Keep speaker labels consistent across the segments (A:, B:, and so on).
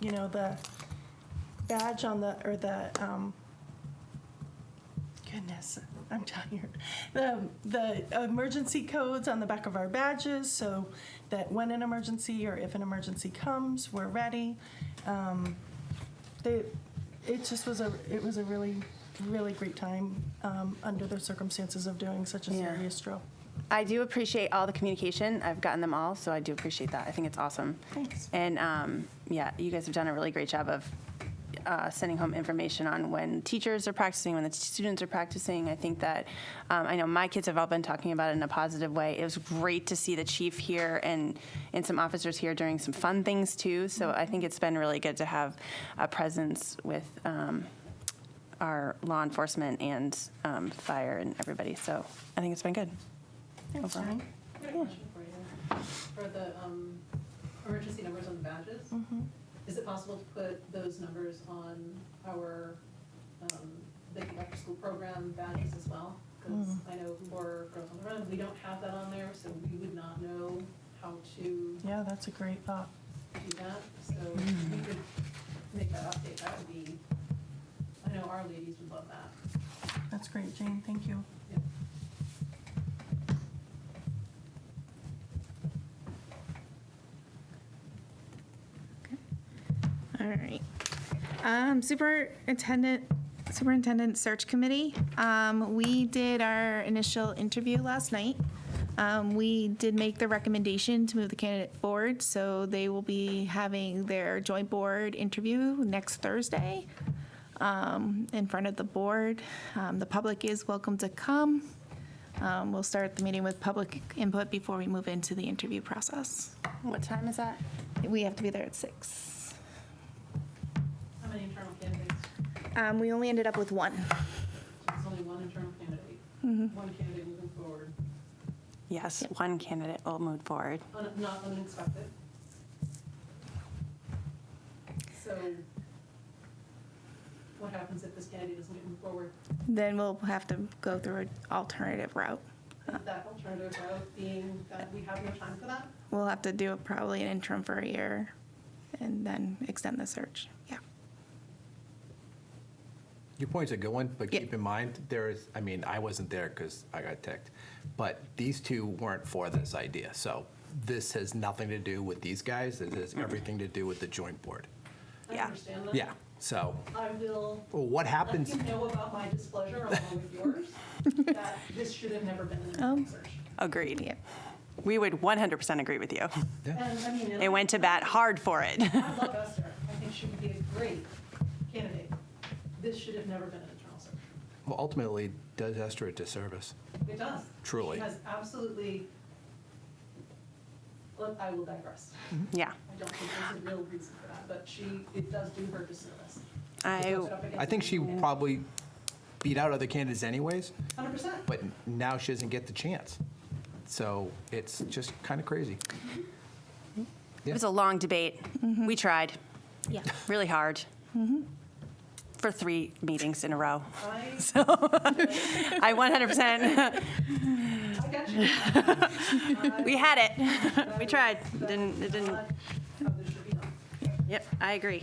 A: you know, the badge on the, or the, um, goodness, I'm tired. The, the emergency codes on the back of our badges, so that when an emergency or if an emergency comes, we're ready. Um, They, it just was a, it was a really, really great time, um, under the circumstances of doing such a
B: Yeah.
A: serious drill.
B: I do appreciate all the communication. I've gotten them all, so I do appreciate that. I think it's awesome.
A: Thanks.
B: And um, yeah, you guys have done a really great job of uh, sending home information on when teachers are practicing, when the students are practicing. I think that um, I know my kids have all been talking about it in a positive way. It was great to see the chief here and and some officers here doing some fun things too. So I think it's been really good to have a presence with. Um, our law enforcement and um, fire and everybody. So I think it's been good.
A: Thanks,
B: Okay.
A: Jenny.
C: I got a question for you. For the um, emergency numbers on the badges,
A: Mm-hmm.
C: is it possible to put those numbers on our, um, the after-school program badges as well? Because I know for Girls on the Run, we don't have that on there, so we would not know how to do
A: Yeah, that's a great thought.
C: that. So if we could make that update, that would be, I know our ladies would love that.
A: That's great, Jane, thank you.
C: Yeah.
D: All right. Um, superintendent, superintendent search committee. Um, we did our initial interview last night. Um, we did make the recommendation to move the candidate forward, so they will be having their joint board interview next Thursday um, in front of the board. Um, the public is welcome to come. Um, we'll start the meeting with public input before we move into the interview process.
B: What time is that?
D: We have to be there at six.
C: How many internal candidates?
D: Um, we only ended up with one.
C: There's only one internal candidate, one candidate moving forward,
B: Yes, one candidate will move forward.
C: Un- not unexpected. So what happens if this candidate doesn't move forward?
D: Then we'll have to go through an alternative route.
C: That alternative route being that we have no time for that?
D: We'll have to do a- probably an interim for a year and then extend the search. Yeah.
E: Your point's a good one, but
D: Yeah.
E: keep in mind, there is, I mean, I wasn't there because I got ticked, but these two weren't for this idea. So this has nothing to do with these guys. It has everything to do with the joint board.
C: I
B: Yeah.
C: understand that.
E: Yeah, so
C: I will
E: well, what
C: let
E: happens?
C: you know about my displeasure along with yours, that this should have never been an
B: Oh.
D: Um.
C: search.
B: Agreed.
D: Yeah.
B: We would 100% agree with you.
E: Yeah.
C: And I mean. and
B: They
C: I-
B: went to bat hard for it.
C: I love Esther. I think she would be a great candidate. This should have never been an internal search.
E: Well, ultimately, does Esther a disservice?
C: It does.
E: Truly.
C: She has absolutely, Look, I will digress.
B: yeah.
C: I don't think there's a real reason for that, but she, it does do her disservice.
B: I,
E: I think she probably beat out other candidates anyways,
C: Hundred percent.
E: but now she doesn't get the chance. So it's just kind of crazy.
B: it was a long debate. We tried
D: Mm-hmm. Yeah. Mm-hmm.
B: really hard for three meetings in a row.
C: I,
B: I 100%.
C: I got you.
B: we had it.
C: That
B: We
C: is-
B: tried.
C: that
B: Didn't,
C: is
B: it didn't.
C: not How this should be done.
B: Yep, I agree.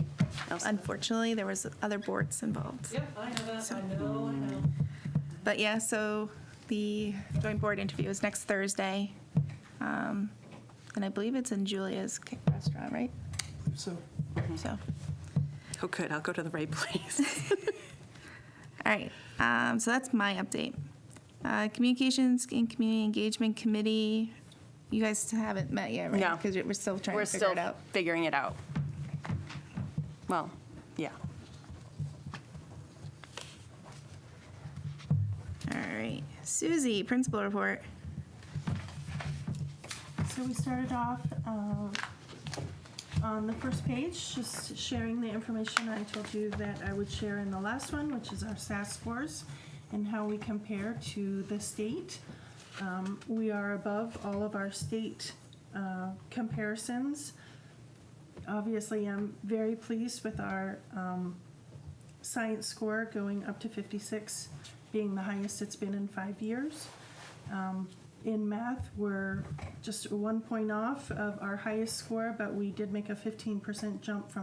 B: Elsa.
D: Unfortunately, there was other boards involved.
C: Yep, I know that. I know, I know.
D: But yeah, so the joint board interview is next Thursday. Um, and I believe it's in Julia's Kick Restaurant, right?
E: So
D: So.
B: Oh, good. I'll go to the right place.
D: All right, um, so that's my update. Uh, Communications and Community Engagement Committee, you guys haven't met yet, right?
B: No.
D: Because we're still trying
B: We're
D: to figure
B: still
D: it out.
B: figuring it out. Well, yeah.
D: All right, Susie, Principal Report.
A: So we started off um, on the first page, just sharing the information I told you that I would share in the last one, which is our SAS scores and how we compare to the state. Um, We are above all of our state uh, comparisons. Obviously, I'm very pleased with our um, science score going up to 56, being the highest it's been in five years. Um, in math, we're just one point off of our highest score, but we did make a 15% jump from